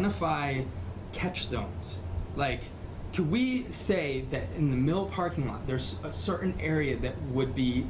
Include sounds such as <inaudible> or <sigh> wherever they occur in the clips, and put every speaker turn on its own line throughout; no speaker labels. identify catch zones. Like, could we say that in the mill parking lot, there's a certain area that would be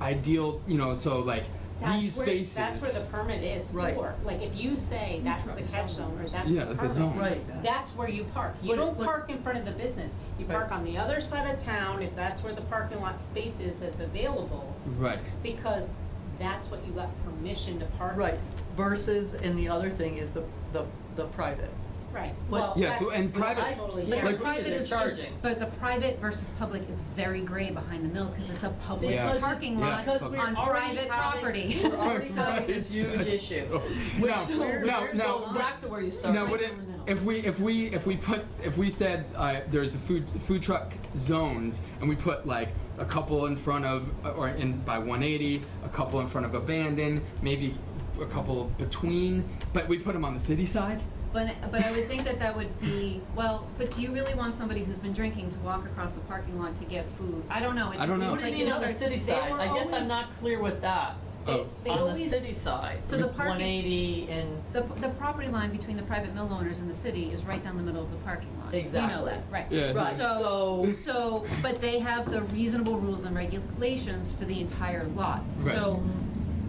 ideal, you know, so like
That's
these
where-
spaces.
That's where the permit is
Right.
for, like, if you say that's the catch zone or that's
Yeah,
the
the zone.
permit,
Right.
that's where you park. You
But it-
don't
but-
park in front of the business, you
Right.
park on the other side of town, if that's where the parking lot space is that's available,
Right.
because that's what you got permission to park. in.
Right, versus, and the other thing is the, the, the private.
Right,
What-
well,
Yeah,
that's
so- and private-
totally
like-
fair.
like-
private
they're
is- is-
charging.
But the private versus public is very gray behind the mills because it's a public
Yeah.
parking
Yeah.
lot
Because
we're
on
already
private
having-
<laughs> property.
<laughs> we're already
So-
having this huge
That's
issue.
so-
Which-
Now,
so where-
now,
where-
now,
so
what-
Back to where you started.
Now,
right
would it,
down the middle.
if we if we if we put if we said uh, there's a food food truck zones and we put like a couple in front of or in by 180, a couple in front of abandoned, maybe a couple between, but we put them on the city side.
But, but I would think that that would be, well, but do you really want somebody who's been drinking to walk across the parking lot to get food? I don't know. It
I don't
just
know.
What
seems
do you
like
mean on
it
the
starts-
city
they
side?
were
I guess I'm
always-
not clear with that.
Oh.
It's
They
on the
always-
city side.
So the
with
parking-
180 and,
The, the property line between the private mill owners and the city is right down the middle of the parking lot. You know
Exactly.
that, right.
Yeah.
right, so,
So, so, but they have the reasonable rules and regulations for the entire lot.
Right.
So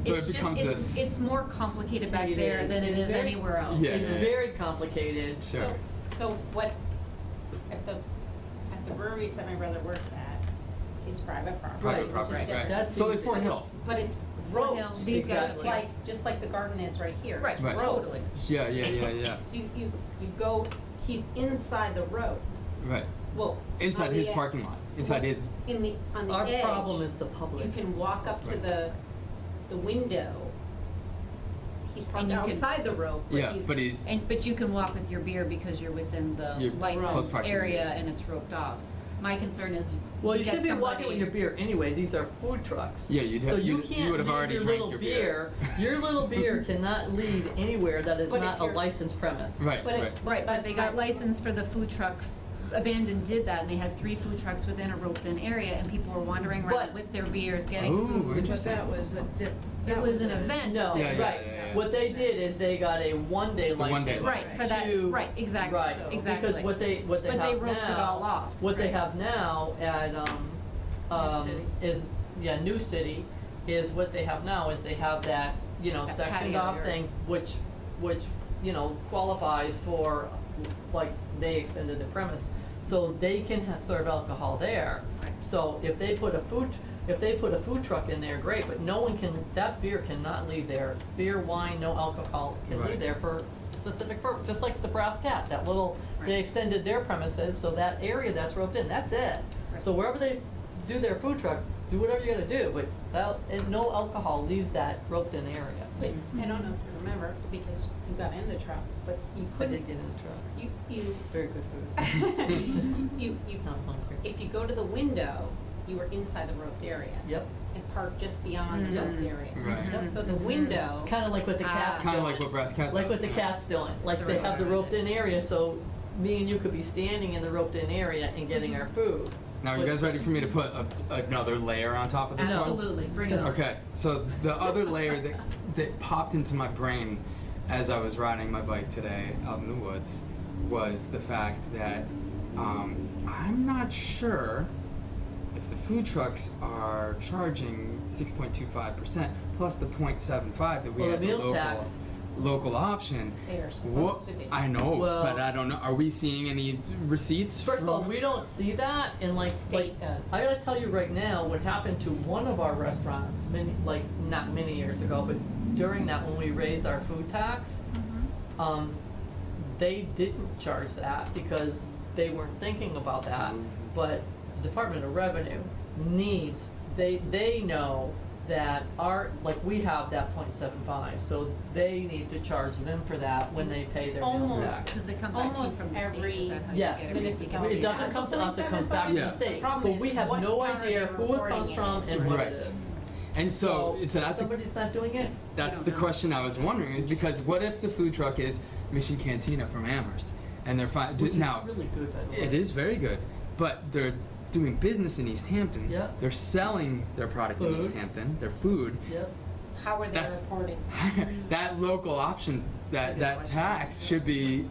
So
it's
it
just,
becomes
it's,
this-
it's more complicated back
It
there
is.
than it
It's
is
very-
anywhere else.
Yeah.
it's
yeah.
very complicated.
Sure.
So- So what, at the, at the breweries that my brother works at, is private property.
Private
which is
property,
different.
right.
That's
So like
easy.
Fort Hill.
That's-
But it's
Well,
road,
no, these
guys
just
are-
like, just like the garden is right here.
Right,
It's
Right.
road.
totally.
Yeah, yeah, yeah, yeah.
So you, you, you go, he's inside the road,
Right.
well.
Inside
on
his
the e-
parking lot. Inside his.
In the, on the
Our
edge.
problem is the public.
You can walk up to
Right.
the, the window. He's parked
And you can-
outside the road,
Yeah, but he's.
And, but you can walk with your beer because you're within the
You're close
licensed
proximity.
area and it's roped off. My concern is
Well, you
get
should be
somebody-
walking with your beer anyway, these are food trucks.
Yeah, you'd
So
have-
you
you'd- you
can't
would have
leave
already
your
drank
little
your beer.
Your
<laughs>
little beer cannot leave anywhere that is
But if
not a
you're-
licensed premise.
Right.
But if,
Right, but they got licensed for the food truck, Abandon did that, and they had three food trucks within a roped-in area, and people were wandering
But-
around with their beers, getting
Ooh,
food.
interesting.
But that was a dip.
It
that
was an
a-
event.
No,
Yeah, yeah,
right.
yeah, yeah, yeah.
What they did is they got a one-day
The one day
license.
Right, for that,
to-
right, exactly,
Right,
exactly.
Because what they, what they have
But
now.
they roped it all off,
What they
right.
have now at, um, um,
City.
is, yeah, New City, is what they have now is they have that, you know,
That
sectioned
patio
off
area.
thing, which, which, you know, qualifies for, like, they extended the premise. So they can ha serve alcohol there.
Right.
So if they put a food, if they put a food truck in there, great, but no one can, that beer cannot leave there. Beer, wine, no alcohol can
Right.
leave there for specific purpose, just like the Brass Cat, that little, they
Right.
extended their premises, so that area that's roped in, that's it. So wherever they do their food truck, do whatever you gotta do, but that, and no alcohol leaves that roped in area.
but I don't know if you remember, because you got in the truck, but you
I
couldn't,
did get in the truck,
you,
<laughs>
you, <laughs>
it's very good food,
you, you,
not hungry.
if you go to the window, you were inside the roped area.
Yep,
And parked just beyond the
Mhm.
roped area.
Mm-hmm. Right. Mm-hmm.
Yep, So the window.
kinda like what the
Ah.
cats do.
Kind of like what Brass Cat.
Like what the
does.
cat's doing, like
That's
they
right.
have the roped-in area, so me and you could be standing in the roped-in area and getting our food.
Now, are you guys ready for me to put a, another layer on top of this one?
Absolutely, bring it on.
Okay, so the other layer that that popped into my brain as I was riding my bike today out in the woods was the fact that um, I'm not sure if the food trucks are charging 6.25% plus the 0.75 that we
Well, the
have as a
meals
local
tax.
local option.
They are supposed
What-
to be.
I know,
Well-
but I don't know. Are we seeing any receipts?
First of all,
from-
we don't see that and like, like,
State does.
I gotta tell you right now, what happened to one of our restaurants, many, like, not many years ago, but during that, when we raised our food tax, um, they didn't charge that because they weren't thinking about that. But Department of Revenue needs, they, they know that our, like, we have that point seven five, so they need to charge them for that when they pay their meals
Almost.
tax.
Because they come back to you
Almost
from the state,
every
is that how you
Yes.
get it? You get
municipality
It
it
doesn't
back?
come to us, it comes back to
Yeah.
the state, but we have no idea who it comes from and what
Right.
it is.
and so, so
if
that's a
Somebody's not doing it,
That's
don't
the
know.
question I was wondering is because what if the food truck is Mission Cantina from Amherst and they're fine
which is
now
really good, by the way.
it is very good but they're doing business in East Hampton
Yeah.
they're selling their product in East
Food. <laughs>
Hampton their food
Yep.
How are they
That's-
reporting?
that local option that, that tax should be